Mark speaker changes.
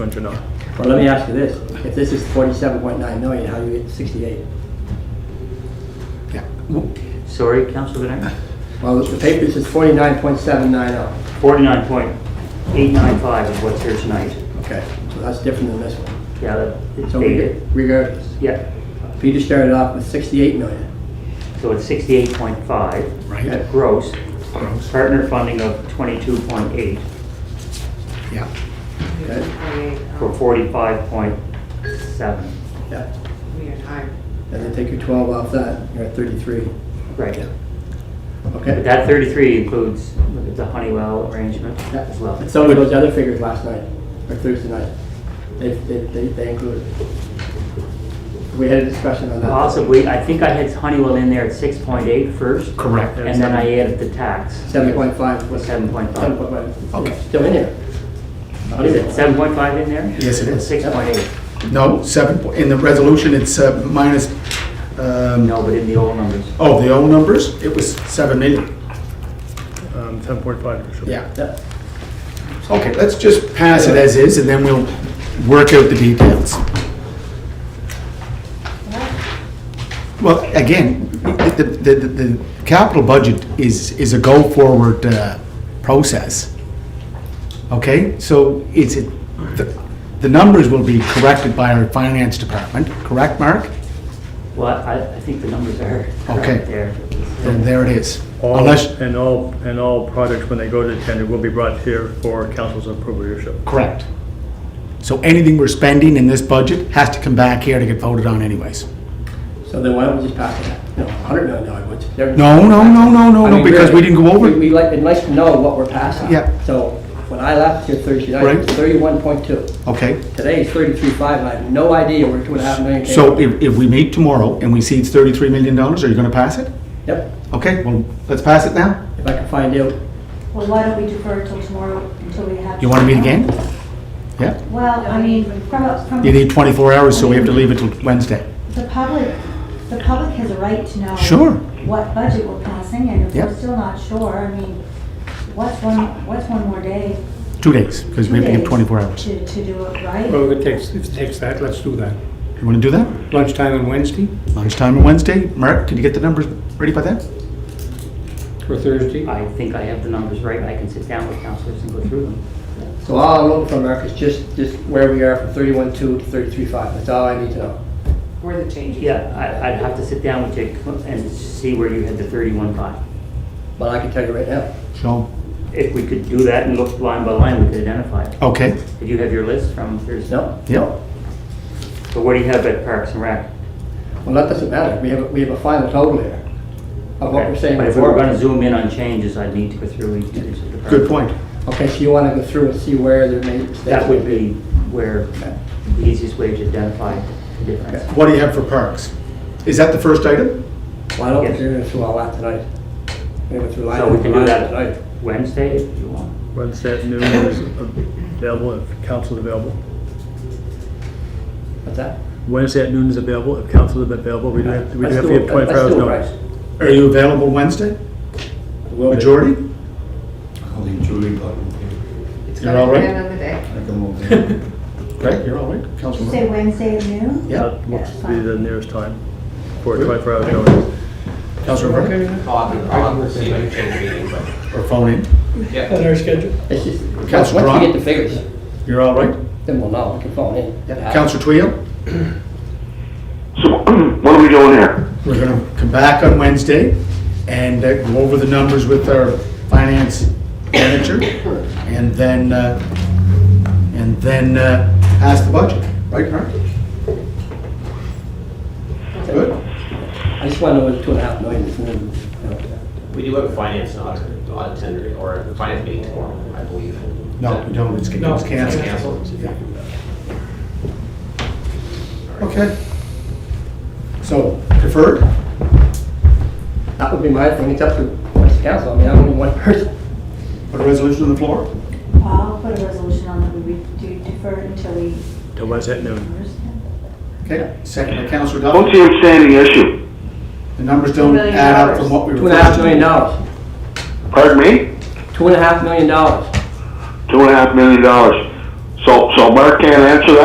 Speaker 1: or not.
Speaker 2: Well, let me ask you this, if this is forty-seven point nine million, how do you get sixty-eight?
Speaker 3: Yeah.
Speaker 4: Sorry, Councilor Bernard?
Speaker 2: Well, the paper says forty-nine point seven nine oh,
Speaker 4: Forty-nine point eight nine five is what's here tonight.
Speaker 2: okay, so that's different than this one.
Speaker 4: Yeah, that- it's
Speaker 2: So we
Speaker 4: dated.
Speaker 2: get regardless,
Speaker 4: Yeah,
Speaker 2: Peter started off with sixty-eight million,
Speaker 4: so it's sixty-eight point five.
Speaker 3: Right.
Speaker 4: Gross,
Speaker 3: Gross.
Speaker 4: partner funding of twenty-two point eight
Speaker 3: Yeah.
Speaker 2: okay?
Speaker 5: um,
Speaker 4: for forty-five point seven.
Speaker 2: Yeah,
Speaker 5: Weird, hard.
Speaker 2: and then take your twelve off that, you're at thirty-three,
Speaker 4: Right.
Speaker 3: Yeah.
Speaker 4: But
Speaker 2: okay?
Speaker 4: that thirty-three includes the Honeywell arrangement as well.
Speaker 2: And some of those other figures last night, or Thursday night, they, they, they- they included. We had a discussion on that.
Speaker 4: Possibly, I think I had Honeywell in there at six point eight first,
Speaker 3: Correct.
Speaker 4: and then I added the tax.
Speaker 2: Seven point five was.
Speaker 4: Seven point
Speaker 2: Seven
Speaker 4: five.
Speaker 2: point five.
Speaker 3: Okay.
Speaker 2: It's Still in there.
Speaker 4: Is it seven point five in there?
Speaker 3: Yes, it is.
Speaker 4: Six point eight.
Speaker 3: No, seven, po- in the resolution, it's uh, minus, um,
Speaker 4: No, but in the old numbers.
Speaker 3: oh, the old numbers, it was seven million.
Speaker 1: Um, 10.5 actually.
Speaker 3: Yeah,
Speaker 2: Yeah.
Speaker 3: okay, let's just pass it as is, and then we'll work out the details. Well, again, the, the, the- the capital budget is, is a go-forward uh, process. Okay, so it's, a- the, the numbers will be corrected by our finance department, correct, Mark?
Speaker 4: Well, I, I think the numbers are
Speaker 3: Okay.
Speaker 4: correct there.
Speaker 3: And there it is.
Speaker 1: All,
Speaker 3: Unless,
Speaker 1: and all, and all projects, when they go to tender, will be brought here for council's appropriation.
Speaker 3: Correct. So anything we're spending in this budget has to come back here to get voted on anyways.
Speaker 2: So then why don't we just pass it, you know, hundred million dollar budget? There-
Speaker 3: No, no, no, no, no,
Speaker 2: I
Speaker 3: no,
Speaker 2: mean,
Speaker 3: because
Speaker 2: really,
Speaker 3: we didn't go over.
Speaker 2: we- We'd like, it'd like to know what we're passing.
Speaker 3: Yeah.
Speaker 2: So when I left here Thursday night, it was
Speaker 3: Right.
Speaker 2: thirty-one point two.
Speaker 3: Okay,
Speaker 2: Today is thirty-three five, and I have no idea where two and a half million came.
Speaker 3: so
Speaker 2: from.
Speaker 3: if, if we meet tomorrow and we see it's thirty-three million dollars, are you gonna pass it?
Speaker 2: Yep,
Speaker 3: Okay, well, let's pass it now.
Speaker 2: if I can find out.
Speaker 6: Well, why don't we defer till tomorrow, until we have.
Speaker 3: You wanna meet again? Yeah,
Speaker 6: Well, I mean, from, a- from,
Speaker 3: you need twenty-four hours, so we have to leave it till Wednesday.
Speaker 6: the public, the public has a right to know.
Speaker 3: Sure.
Speaker 6: What budget we're passing, and if
Speaker 3: Yep.
Speaker 6: we're still not sure, I mean, what's one, what's one more day?
Speaker 3: Two days, because we have to give
Speaker 6: Two days
Speaker 3: twenty-four hours.
Speaker 6: To, to do it right?
Speaker 7: Well, if it takes, if it takes that, let's do that.
Speaker 3: You wanna do that?
Speaker 7: Lunchtime on Wednesday
Speaker 3: Lunchtime on Wednesday? Mark, can you get the numbers ready by then?
Speaker 7: or Thursday?
Speaker 4: I think I have the numbers right. I can sit down with counselors and go through them.
Speaker 2: So all I'm looking for, Mark, is just, just where we are from thirty-one two to thirty-three five. That's all I need to know.
Speaker 5: Where the changes.
Speaker 4: Yeah, I, I'd have to sit down with you and see where you had the thirty-one five.
Speaker 2: But I can tell you right now.
Speaker 3: So,
Speaker 4: If we could do that and look line by line, we could identify it.
Speaker 3: okay,
Speaker 4: Did you have your list from Thursday?
Speaker 2: No?
Speaker 3: yep.
Speaker 4: So what do you have at Parks and Rec?
Speaker 2: Well, that doesn't matter. We have, a- we have a final total here of what we're saying
Speaker 4: But if we
Speaker 2: before.
Speaker 4: were gonna zoom in on changes, I'd need to go through each of these. departments.
Speaker 3: Good point.
Speaker 2: Okay, so you want to go through and see where there may mistakes.
Speaker 4: That would be where
Speaker 2: Okay.
Speaker 4: the easiest way to identify the difference.
Speaker 3: What do you have for parks? Is that the first item?
Speaker 2: Well, I don't
Speaker 4: Yes.
Speaker 2: think you're going to through all that tonight. We went through
Speaker 4: So we
Speaker 2: line
Speaker 4: can do
Speaker 2: line
Speaker 4: that
Speaker 2: tonight.
Speaker 4: Wednesday if you want.
Speaker 1: Wednesday at noon is available if council's available.
Speaker 2: What's that?
Speaker 1: Wednesday at noon is available if council is available. We do have, we do
Speaker 2: Let's
Speaker 1: have
Speaker 2: do
Speaker 1: to
Speaker 2: it.
Speaker 1: give 24
Speaker 2: Let's
Speaker 1: hours
Speaker 2: do it
Speaker 1: notice.
Speaker 3: Are you available Wednesday?
Speaker 2: right. Will do.
Speaker 3: Majority?
Speaker 8: I'll enjoy that.
Speaker 5: It's
Speaker 3: You're
Speaker 5: gotta
Speaker 3: all
Speaker 5: be
Speaker 3: right?
Speaker 5: Another day.
Speaker 8: I don't know. then.
Speaker 3: Right, you're all right,
Speaker 6: Did you say
Speaker 3: Councilman.
Speaker 6: Wednesday at noon?
Speaker 3: Yeah,
Speaker 1: That looks
Speaker 6: That's
Speaker 1: to be
Speaker 6: fine.
Speaker 1: the nearest time for 24 hours notice.
Speaker 3: Councilman Burke,
Speaker 9: I'll have to, I'll have to see if I can change meeting, but,
Speaker 3: or phone in.
Speaker 9: yeah.
Speaker 2: It's just, once
Speaker 3: Councilor
Speaker 2: we
Speaker 3: Brown?
Speaker 2: get the figures,
Speaker 3: You're all right?
Speaker 2: then we'll know. We can phone in. Uh,
Speaker 3: Councilor Tweel,
Speaker 10: So what are we doing here?
Speaker 3: we're gonna come back on Wednesday and uh, go over the numbers with our finance manager, and then, uh, and then uh, pass the budget, right, Mark? Good?
Speaker 2: I just want to know what two and a half million is. and then, you know.
Speaker 9: We do have a finance and audit, audit tender, or a finance meeting tomorrow, I believe.
Speaker 3: No, we don't, it's it's
Speaker 7: No.
Speaker 9: It's
Speaker 3: canceled.
Speaker 9: canceled.
Speaker 3: Okay. So, deferred?
Speaker 2: That would be my thing. It's up to the council. I mean, I'm only one person.
Speaker 3: Put a resolution on the floor?
Speaker 6: I'll put a resolution on that we do defer until we
Speaker 1: Till Wednesday at noon.
Speaker 6: understand.
Speaker 3: Okay, second by Councilor
Speaker 10: I don't
Speaker 3: Duffy.
Speaker 10: see him saying the issue.
Speaker 3: The numbers don't
Speaker 5: Million
Speaker 3: add up from
Speaker 5: dollars.
Speaker 3: what we were.
Speaker 2: Two and a half
Speaker 3: first-
Speaker 2: million dollars.
Speaker 10: Pardon me?
Speaker 2: Two and a half million dollars.
Speaker 10: Two and a half million dollars.
Speaker 9: So, so Mark can't answer that?